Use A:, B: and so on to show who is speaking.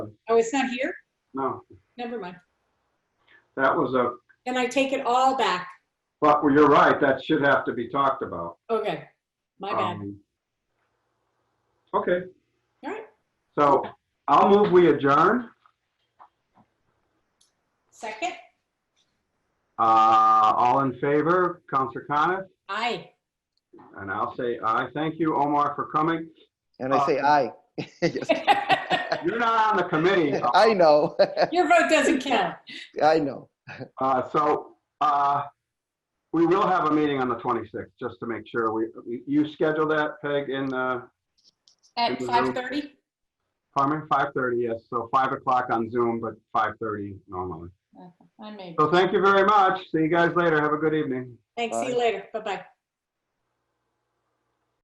A: Oh, it's not here?
B: No,
A: Never mind.
B: that was a,
A: Then I take it all back.
B: but you're right, that should have to be talked about.
A: Okay, my bad.
B: Um, Okay.
A: All right.
B: So I'll move we adjourn.
A: Second?
B: Uh, all in favor, Counselor Coniff,
A: Aye.
B: and I'll say aye. Thank you, Omar, for coming.
C: And I say aye. Yes.
B: You're not on the committee.
C: I know,
A: Your vote doesn't count.
C: I know.
B: Uh, so, uh, we will have a meeting on the 26th, just to make sure. We, you schedule that, Peg, in, uh,
A: At 5:30?
B: Carmen, 5:30, yes. So 5 o'clock on Zoom, but 5:30 normally.
A: I may.
B: So thank you very much. See you guys later. Have a good evening.
A: Thanks, see you
C: Bye.
A: later. Bye-bye.